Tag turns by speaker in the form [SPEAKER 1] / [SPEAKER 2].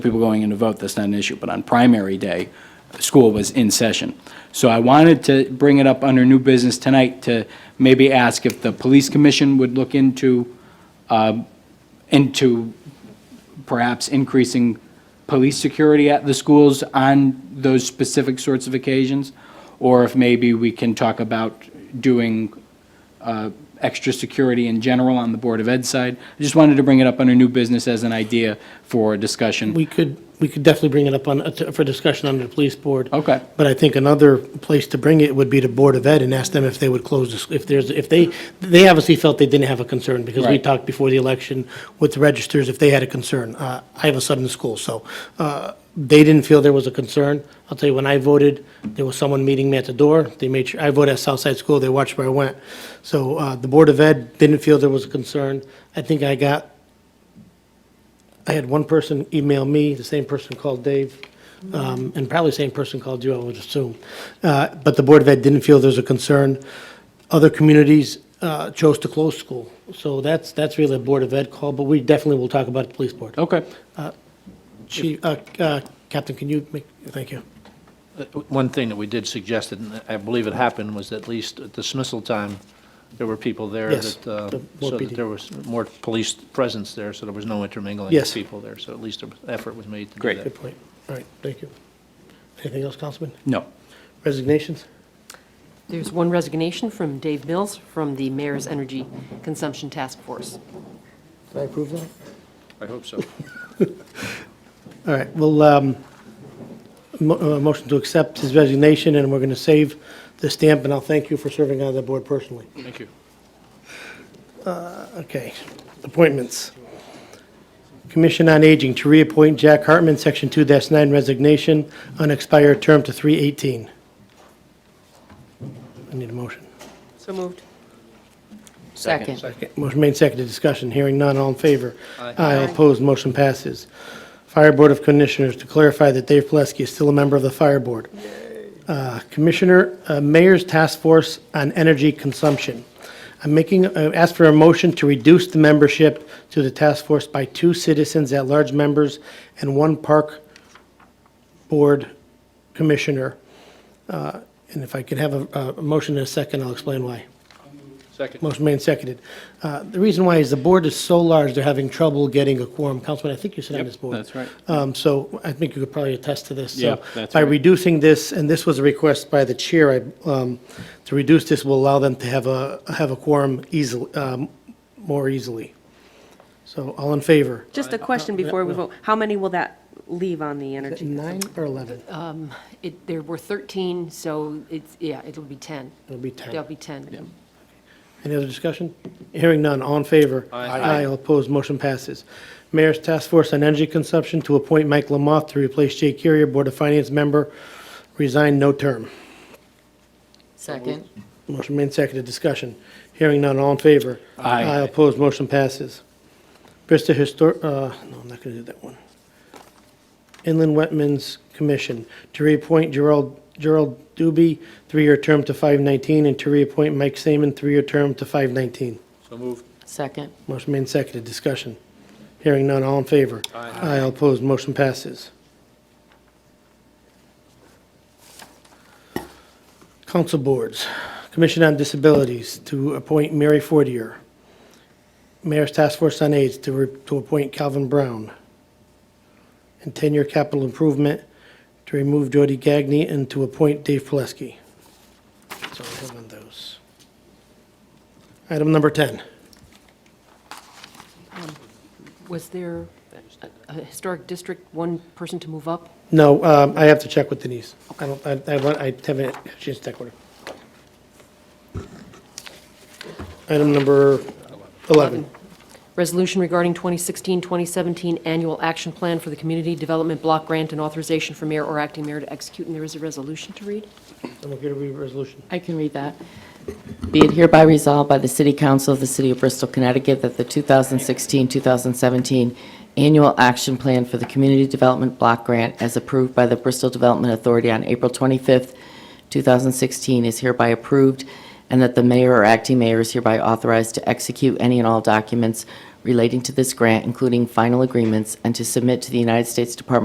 [SPEAKER 1] people going in to vote, that's not an issue, but on primary day, school was in session. So I wanted to bring it up under new business tonight to maybe ask if the police commission would look into, um, into perhaps increasing police security at the schools on those specific sorts of occasions, or if maybe we can talk about doing uh, extra security in general on the Board of Ed side. I just wanted to bring it up under new business as an idea for discussion.
[SPEAKER 2] We could, we could definitely bring it up on, for discussion under the police board.
[SPEAKER 1] Okay.
[SPEAKER 2] But I think another place to bring it would be to Board of Ed and ask them if they would close, this- if there's, if they, they obviously felt they didn't have a concern because we
[SPEAKER 1] Right.
[SPEAKER 2] talked before the election with the registers if they had a concern. Uh, I have a son in school, so uh, they didn't feel there was a concern. I'll tell you, when I voted, there was someone meeting me at the door. They made sure, I voted at Southside School, they watched where I went. So uh, the Board of Ed didn't feel there was a concern. I think I got I had one person email me, the same person called Dave, um, and probably the same person called you, I would assume. Uh, But the Board of Ed didn't feel there's a concern. Other communities uh, chose to close school. So that's, that's really a Board of Ed call, but we definitely will talk about the police board.
[SPEAKER 1] Okay.
[SPEAKER 2] Chief, uh, uh, Captain, can you make, thank you.
[SPEAKER 3] One thing that we did suggest, and I believe it happened, was at least at dismissal time, there were people there
[SPEAKER 2] Yes,
[SPEAKER 3] that, uh,
[SPEAKER 2] the- more
[SPEAKER 3] so that
[SPEAKER 2] PD.
[SPEAKER 3] there was more police presence there, so there was no intermingling
[SPEAKER 2] Yes.
[SPEAKER 3] of people there, so at least an effort was made to do
[SPEAKER 1] Great.
[SPEAKER 3] that.
[SPEAKER 2] Good point. All right, thank you. Anything else, Councilman?
[SPEAKER 1] No.
[SPEAKER 2] Resignations?
[SPEAKER 4] There's one resignation from Dave Mills from the Mayor's Energy Consumption Task Force.
[SPEAKER 2] Did I approve that?
[SPEAKER 3] I hope so.
[SPEAKER 2] All right, well, um, mo- uh, motion to accept his resignation, and we're going to save the stamp, and I'll thank you for serving on the board personally.
[SPEAKER 3] Thank you.
[SPEAKER 2] Okay, appointments. Commission on Aging to reappoint Jack Hartman, Section 2-9 resignation, unexpired term to 318. I need a motion.
[SPEAKER 4] So moved. Second.
[SPEAKER 2] Okay, Motion made, seconded, discussion, hearing none, all in favor?
[SPEAKER 3] Aye.
[SPEAKER 2] opposed, motion passes. Fire Board of Commissioners, to clarify that Dave Plesky is still a member of the Fire Board. Uh, Commissioner, uh, Mayor's Task Force on Energy Consumption. I'm making, uh, ask for a motion to reduce the membership to the task force by two citizens at-large members and one Park Board Commissioner. Uh, And if I could have a, a motion in a second, I'll explain why.
[SPEAKER 3] Second.
[SPEAKER 2] Motion made and seconded. Uh, The reason why is the board is so large, they're having trouble getting a quorum. Councilman, I think you sit on this board.
[SPEAKER 1] that's right.
[SPEAKER 2] Um, So I think you could probably attest to this. So
[SPEAKER 1] Yeah, that's
[SPEAKER 2] By
[SPEAKER 1] right.
[SPEAKER 2] reducing this, and this was a request by the chair, I, um, to reduce this will allow them to have a, have a quorum easily, um, more easily. So all in favor?
[SPEAKER 5] Just a
[SPEAKER 2] Uh,
[SPEAKER 5] question before we vote. How many will that leave on the energy?
[SPEAKER 2] Nine or 11?
[SPEAKER 4] It, there were 13, so it's, yeah, it'll be 10.
[SPEAKER 2] It'll be 10.
[SPEAKER 4] There'll be 10.
[SPEAKER 2] Any other discussion? Hearing none, all in favor? Aye. all opposed, motion passes. Mayor's Task Force on Energy Consumption to appoint Mike Lamoth to replace Jay Carrier, Board of Finance member, resigned, no term.
[SPEAKER 4] Second.
[SPEAKER 2] Motion made, seconded, discussion. Hearing none, all in favor?
[SPEAKER 1] Aye.
[SPEAKER 2] Aye, opposed, motion passes. Bristol Histor, uh, no, I'm not gonna do that one. Inland Wetlands Commission, to reappoint Gerald, Gerald Doobie, three-year term to 519, and to reappoint Mike Saman, three-year term to 519.
[SPEAKER 3] So moved.
[SPEAKER 4] Second.
[SPEAKER 2] Motion made and seconded, discussion. Hearing none, all in favor? Aye. all opposed, motion passes. Council boards, Commission on Disabilities to appoint Mary Fortier. Mayor's Task Force on AIDS to, re- to appoint Calvin Brown. And ten-year capital improvement to remove Jody Gagny and to appoint Dave Plesky. So we have on those. Item number ten.
[SPEAKER 4] Was there a- a historic district, one person to move up?
[SPEAKER 2] No, um, I have to check with Denise. I don't, I, I want- I haven't, she's checked with her. Item number 11.
[SPEAKER 4] Resolution regarding 2016-2017 Annual Action Plan for the Community Development Block Grant and authorization for mayor or acting mayor to execute, and there is a resolution to read?
[SPEAKER 2] I'm going to read resolution.
[SPEAKER 6] I can read that. Be it hereby resolved by the City Council of the City of Bristol, Connecticut, that the 2016-2017 Annual Action Plan for the Community Development Block Grant, as approved by the Bristol Development Authority on April 25th, 2016, is hereby approved, and that the mayor or acting mayor is hereby authorized to execute any and all documents relating to this grant, including final agreements, and to submit to the United States Department